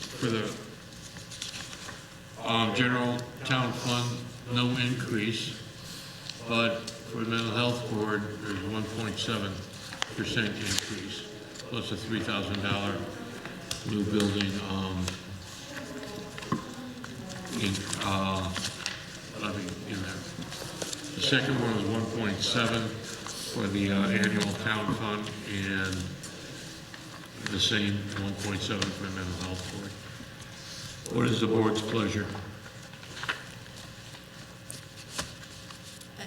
for the um, general town fund, no increase, but for the mental health board, there's 1.7 percent increase, plus a $3,000 new building um, in, uh, levy in there. The second one was 1.7 for the uh, annual town fund, and the same 1.7 for the mental health board. What is the board's pleasure?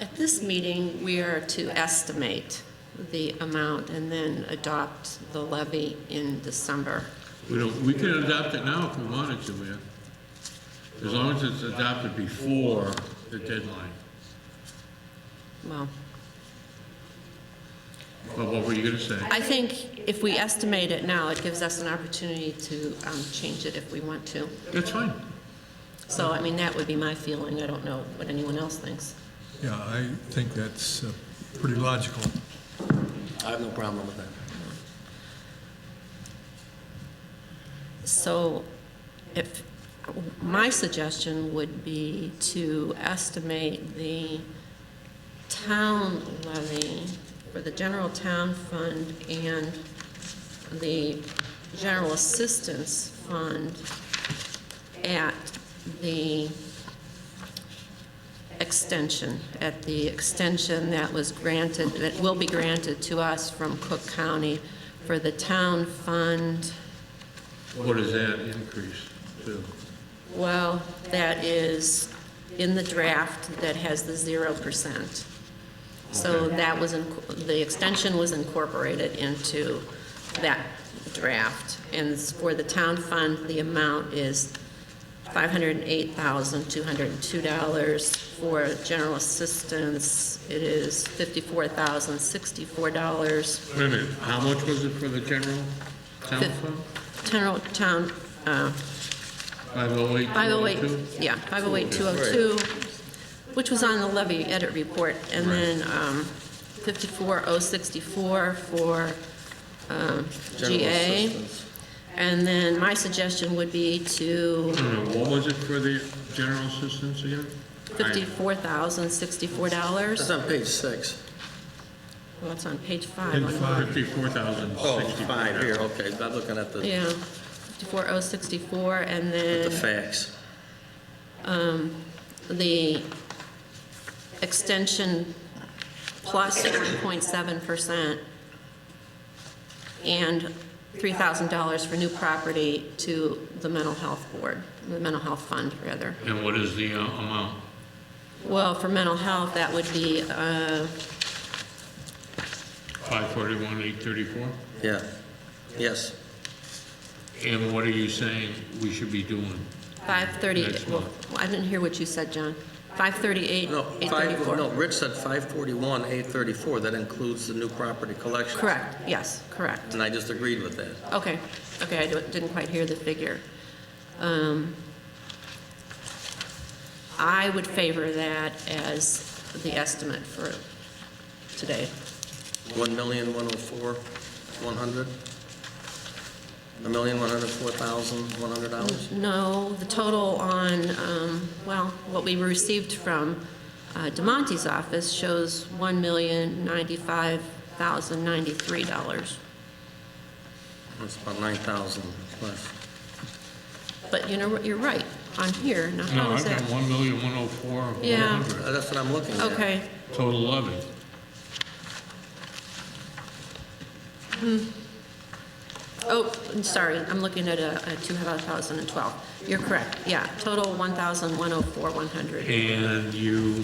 At this meeting, we are to estimate the amount and then adopt the levy in December. We don't, we could adopt it now if we wanted to, man. As long as it's adopted before the deadline. Well, Well, what were you gonna say? I think if we estimate it now, it gives us an opportunity to um, change it if we want to. That's fine. So, I mean, that would be my feeling. I don't know what anyone else thinks. Yeah, I think that's uh, pretty logical. I have no problem with that. So if, my suggestion would be to estimate the town levy for the general town fund and the general assistance fund at the extension, at the extension that was granted, that will be granted to us from Cook County for the town fund. What is that increase to? Well, that is in the draft that has the zero percent. So Okay. that was, inc- the extension was incorporated into that draft. And for the town fund, the amount is five hundred and eight thousand, two hundred and two dollars. For general assistance, it is fifty-four thousand, sixty-four dollars. Wait a minute, how much was it for the general town fund? General town, uh, 508? 508, yeah, 508202, which was on the levy edit report, and then um, 54064 for um, General GA. assistance. And then my suggestion would be to No, no, what was it for the general assistance again? $54,064. That's on page six. Well, it's on page Page five. on- five. Oh, 54,064. five here, okay, I'm looking at the, Yeah, 54064, and the then facts. the extension plus 1.7% and $3,000 for new property to the mental health board, the mental health fund, rather. And what is the uh, amount? Well, for mental health, that would be, uh, 541, 834? Yeah, yes. And what are you saying we should be doing? 530, Next well, one. I didn't hear what you said, John. 538, No, five, no, 834. Rich said 541, 834, that includes the new property collection. Correct, yes, correct. And I just agreed with that. Okay, okay, I don't- didn't quite hear the figure. Um, I would favor that as the estimate for today. 1,104, 100? 1,104,100 dollars? No, the total on, um, well, what we received from uh, DeMonte's office shows $1,095,093. That's about 9,000 less. But you know, what? you're right, on here, No, now how I've is got that? 1,104,100. Yeah. Uh, That's what I'm looking at. Okay, Total levy. oh, I'm sorry, I'm looking at a a 2012. You're correct, yeah, total 1,104, 100. And you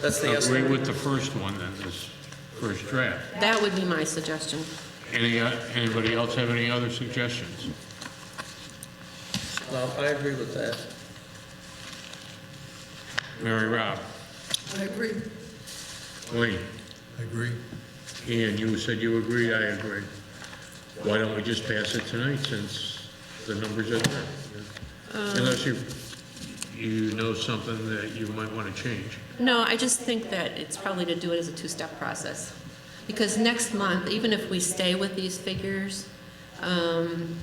That's the agree estimate. with the first one, then, this first draft? That would be my suggestion. Any, uh, anybody else have any other suggestions? No, I agree with that. Mary Rob? I agree. Wayne? I agree. Ian, you said you agreed, I agree. Why don't we just pass it tonight, since the numbers are there? Unless you, you know something that you might want to change. No, I just think that it's probably to do it as a two-step process. Because next month, even if we stay with these figures, um,